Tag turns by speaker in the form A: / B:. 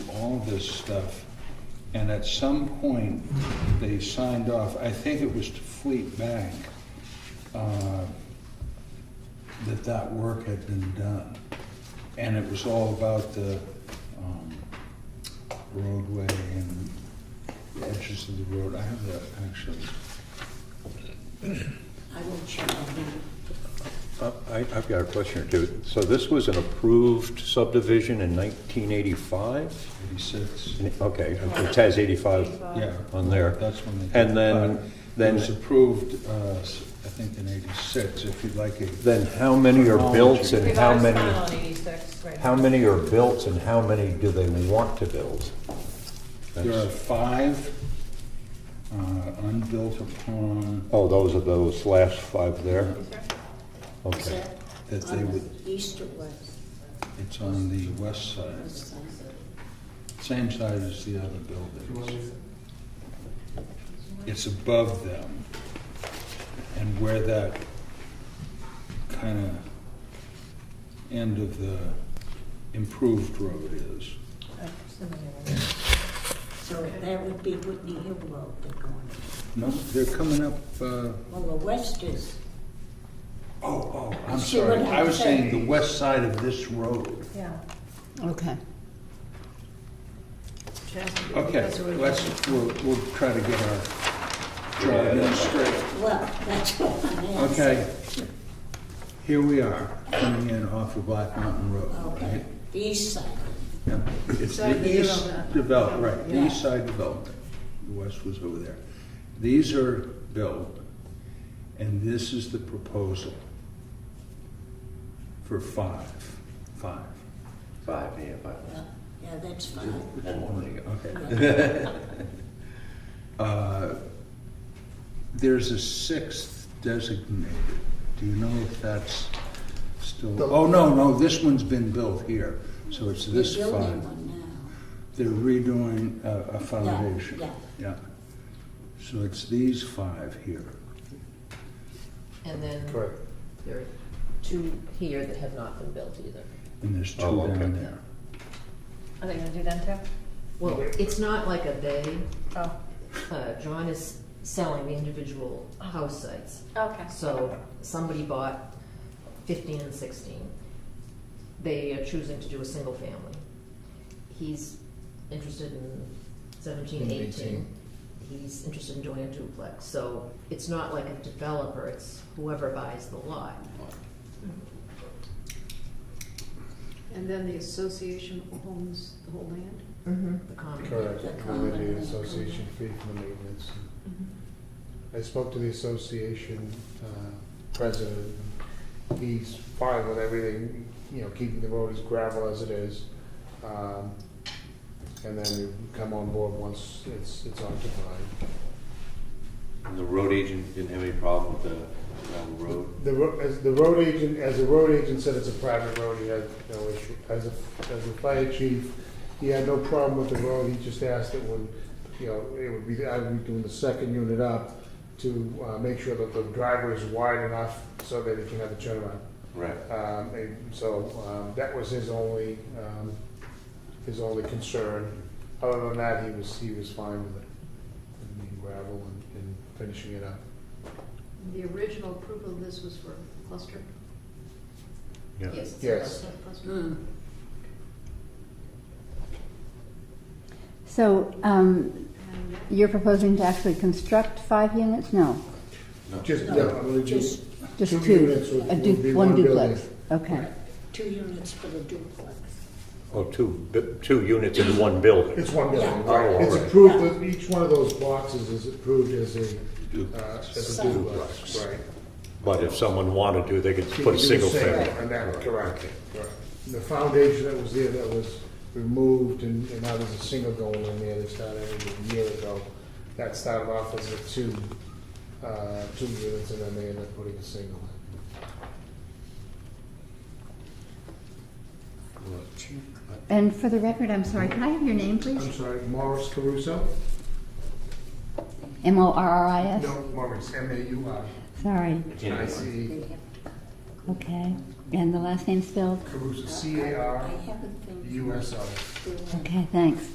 A: all this stuff, and at some point, they signed off, I think it was to Fleet Bank, uh, that that work had been done. And it was all about the um, roadway and the edges of the road. I have that actually.
B: I will check on that.
C: Uh, I- I've got a question or two. So this was an approved subdivision in 1985?
A: 86.
C: Okay, it has 85
A: Yeah.
C: on there.
A: That's when they.
C: And then-
A: but
C: then-
A: It was approved, uh, s- I think in 86, if you'd like it.
C: Then how many are built and
D: We've
C: how
D: always filed
C: many,
D: on 86, right?
C: how many are built and how many do they want to build?
A: There are
C: That's-
A: five uh, unbuilt upon
C: Oh, those are those last five there?
B: Is
C: Okay.
B: that
A: that they
B: on
A: would,
B: the east or west?
A: it's on the west side,
B: West side.
A: same side as the other buildings. It's above them. And where that kind of end of the improved road is.
B: So that would be Whitney Hill Road they're going.
A: No, they're coming up, uh,
B: Well, the west is,
A: oh, oh, I'm
B: See what
A: sorry. I
B: I'm
A: was
B: saying?
A: saying the west side of this road.
D: Yeah.
E: Okay.
A: Okay, let's, we'll, we'll try to get our drawing straight.
B: well, that's what I'm asking.
A: Okay. Here we are, coming in off of Black Mountain Road, right?
B: Okay, the east side.
A: Yeah. It's
D: Side
A: the east
D: development.
A: develop, right, the
B: Yeah.
A: east side development. The west was over there. These are built, and this is the proposal for five, five.
F: Five, yeah, five.
B: Yeah, Yeah, that's fine.
A: Okay.
B: Yeah.
A: Uh, There's a sixth designated. Do you know if that's still, oh, no, no, this one's been built here, so it's this
B: They're building
A: five.
B: one
A: They're redoing a, a
B: now.
A: foundation.
B: Yeah,
A: Yeah. So it's these five here.
D: And then
F: Correct.
D: there are two here that have not been built either.
A: And there's two
C: Oh, okay.
A: down there.
D: Are they gonna do them too? Well, it's not like a they.
G: Oh,
D: Uh, John is selling the individual house sites.
G: okay.
D: So somebody bought 15 and 16. They are choosing to do a single family. He's interested in 17, 18. He's interested in doing a duplex. So it's not like a developer, it's whoever buys the lot.
H: And then the association owns the whole land?
D: The common.
F: Correct,
B: The
F: and
B: common
F: then
B: and
F: the
B: the
F: association fee for the maintenance. I spoke to the association uh, president, and he's fine with everything, you know, keeping the road as gravel as it is. Um, And then you come on board once it's, it's occupied.
I: And the road agent didn't have any problem with the gravel road?
F: The, ro- as the road agent, as the road agent said, it's a private road, he had no issue. As a, as a fire chief, he had no problem with the road, he just asked it when, you know, it would be, I would be doing the second unit up to, uh, make sure that the driver is wide enough so that it can have a turnaround.
I: Right.
F: Um, and so, um, that was his only, um, his only concern. Other than that, he was, he was fine with it, and the gravel and, and finishing it up.
H: The original approval of this was for cluster?
D: Yes. it's a
F: Yes.
D: cluster.
H: cluster?
B: Hmm.
E: So um,
H: And
E: you're proposing to actually construct five units? No,
F: Just,
B: No,
F: yeah, I believe you-
B: Just
E: just two.
F: Two units would-
E: A
F: would
E: du-
F: be
E: one
F: one
E: duplex. Okay.
B: two units for the duplex.
C: Oh, two, bu- two units in one building?
F: It's one building,
C: Yeah.
F: right? It's
C: Alright.
F: approved, each one of those boxes is approved as a, uh, as a
B: Site.
F: duplex, right?
C: But if someone wanted to, they could
F: You
C: put
F: can do
C: a
F: the
C: single
F: same
C: family.
F: on that, correct, correct. The foundation that was there that was removed and and now there's a single going in there that started a year ago. That started off as a two, uh, two units and then they ended up putting a single in.
E: And for the record, I'm sorry, can I have your name, please?
F: I'm sorry, Morris Caruso?
E: M-O-R-R-I-S?
F: No, Morris, M A U R,
E: Sorry,
F: I C
B: They have-
E: okay. And the last name spelled?
F: Caruso, C A
B: I
F: R
B: haven't been.
F: U S O.
E: Okay, thanks.